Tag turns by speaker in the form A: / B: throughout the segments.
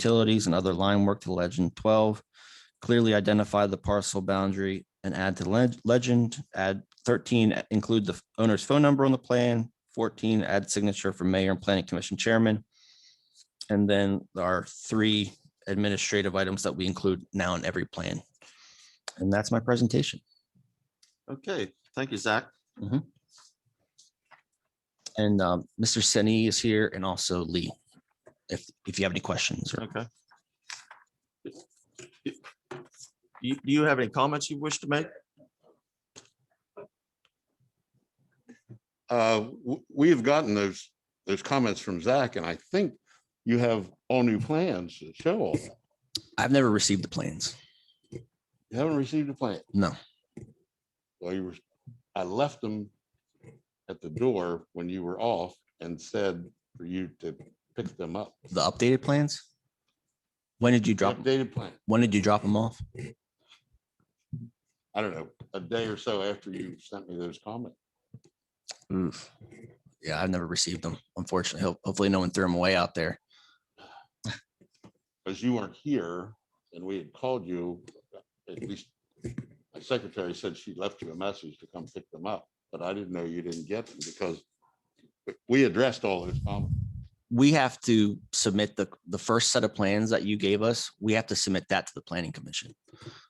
A: utilities and other line work to legend twelve. Clearly identify the parcel boundary and add to leg- legend, add thirteen, include the owner's phone number on the plan. Fourteen, add signature for mayor and planning commission chairman. And then there are three administrative items that we include now in every plan. And that's my presentation.
B: Okay, thank you, Zach.
A: And um, Mr. Seni is here and also Lee. If, if you have any questions or
B: Okay. You, do you have any comments you wish to make?
C: Uh, w- we have gotten those, those comments from Zach, and I think you have all new plans that show all. that.
A: I've never received the plans.
C: You haven't received a plan.
A: No.
C: Well, you were, I left them at the door when you were off and said for you to pick them up.
A: The updated plans? When did you drop,
C: Updated plan.
A: when did you drop them off?
C: I don't know, a day or so after you sent me those comments.
A: Oof. Yeah, I've never received them, unfortunately. Ho- Hopefully no one threw them away out there.
C: because you weren't here and we had called you, at least my secretary said she left you a message to come pick them up, but I didn't know you didn't get them because we- we addressed all those comments.
A: We have to submit the, the first set of plans that you gave us. We have to submit that to the planning commission.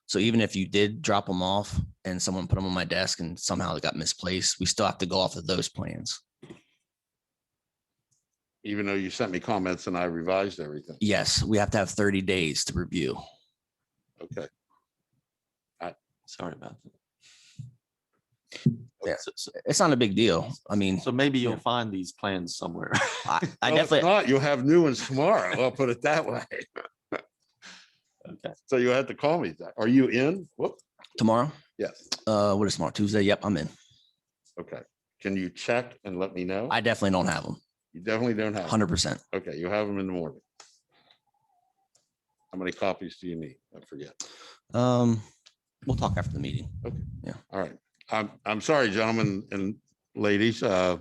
A: So even if you did drop them off and someone put them on my desk and somehow it got misplaced, we still have to go off of those plans.
C: Even though you sent me comments and I revised everything.
A: Yes, we have to have thirty days to review.
C: Okay,
B: Sorry about that.
A: Yeah.
B: So- so-
A: It's not a big deal. I mean,
B: So maybe you'll
A: Yeah.
B: find these plans somewhere.
A: I, I
C: Well, if
A: definitely,
C: Not, you'll have new ones tomorrow. I'll put it that way.
B: Okay.
C: So you had to call me. Zach. Are you in? Whoop,
A: tomorrow,
C: yes,
A: uh, what is tomorrow? Tuesday? Yep, I'm in.
C: okay. Can you check and let me know?
A: I definitely don't have them,
C: You definitely don't have. 'em.
A: hundred percent.
C: Okay, you have them in the morning. How many copies do you need? I forget.
A: Um, we'll talk after the meeting.
C: All right. I'm, I'm sorry, gentlemen and ladies. uh,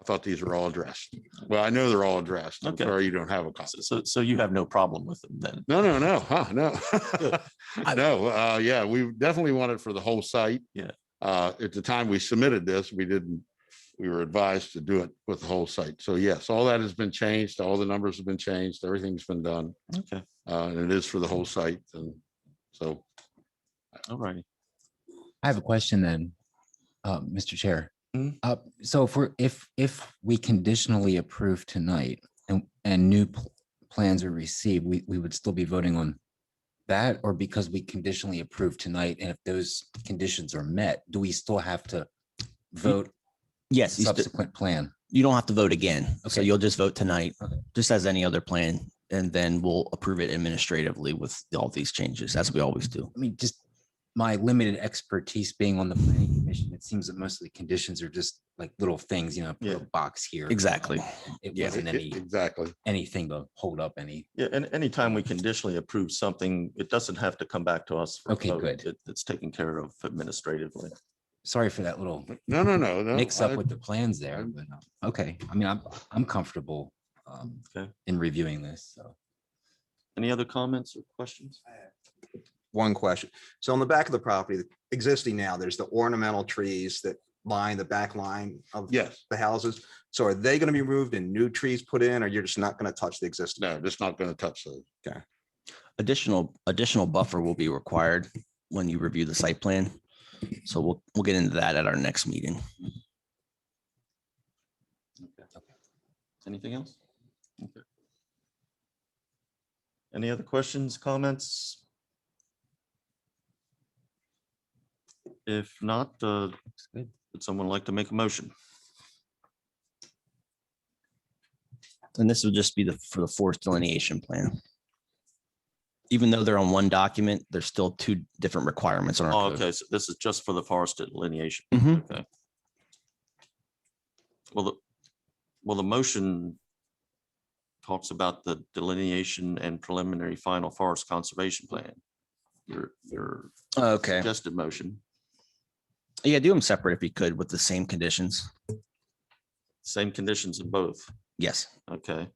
C: I thought these were all addressed. Well, I know they're all addressed. I'm
B: Okay.
C: sorry you don't have a copy.
B: So- So, so you have no problem with them then?
C: No, no, no, huh, no.
B: Good.
C: No, uh, yeah, we definitely want it for the whole site.
B: Yeah.
C: Uh, at the time we submitted this, we didn't, we were advised to do it with the whole site. So yes, all that has been changed. All the numbers have been changed. Everything's been done.
B: Okay,
C: Uh, and it is for the whole site. And so
B: all right.
D: I have a question then, uh, Mr. Chair.
B: Mm.
D: Uh, so if we're, if, if we conditionally approve tonight and, and new pl- plans are received, we, we would still be voting on that or because we conditionally approve tonight and if those conditions are met, do we still have to vote
A: Yes, you, st-
D: subsequent plan?
A: you don't have to vote again. So
D: Okay.
A: you'll just vote tonight,
D: Okay.
A: just as any other plan. And then we'll approve it administratively with all these changes, as we always do.
D: I mean, just my limited expertise being on the planning commission, it seems that most of the conditions are just like little things, you know, put a
B: Yeah.
D: box here. Um,
A: Exactly.
D: It
A: yeah.
D: wasn't
C: e- e-
D: any,
C: exactly.
D: anything to hold up any.
B: Yeah, and anytime we conditionally approve something, it doesn't have to come back to us. for a
D: Okay,
B: vote.
D: good.
B: It- It's taken care of administratively.
D: Sorry for that little
C: No, no, no, no.
D: mix up
C: I-
D: with the plans there,
C: I'm-
D: but uh, okay, I mean, I'm, I'm comfortable um,
B: Okay.
D: in reviewing this, so.
B: Any other comments or questions?
E: one question. So on the back of the property, existing now, there's the ornamental trees that line the back line of
C: Yes,
E: the houses. So are they going to be removed and new trees put in, or you're just not going to touch the existing?
C: no, just not going to touch those.
A: Additional, additional buffer will be required when you review the site plan. So we'll, we'll get into that at our next meeting.
B: Anything else? Okay. Any other questions, comments? If not, uh, would someone like to make a motion?
A: And this will just be the, for the forest delineation plan. Even though they're on one document, there's still two different requirements on
B: Oh,
A: our code.
B: Okay, so this is just for the forest delineation.
A: Mhm.
B: Okay. Well, the, well, the motion talks about the delineation and preliminary final forest conservation plan. Your, your
A: Okay.
B: suggested motion,
A: Yeah, do them separate if you could with the same conditions.
B: same conditions in both.
A: Yes.
B: Okay.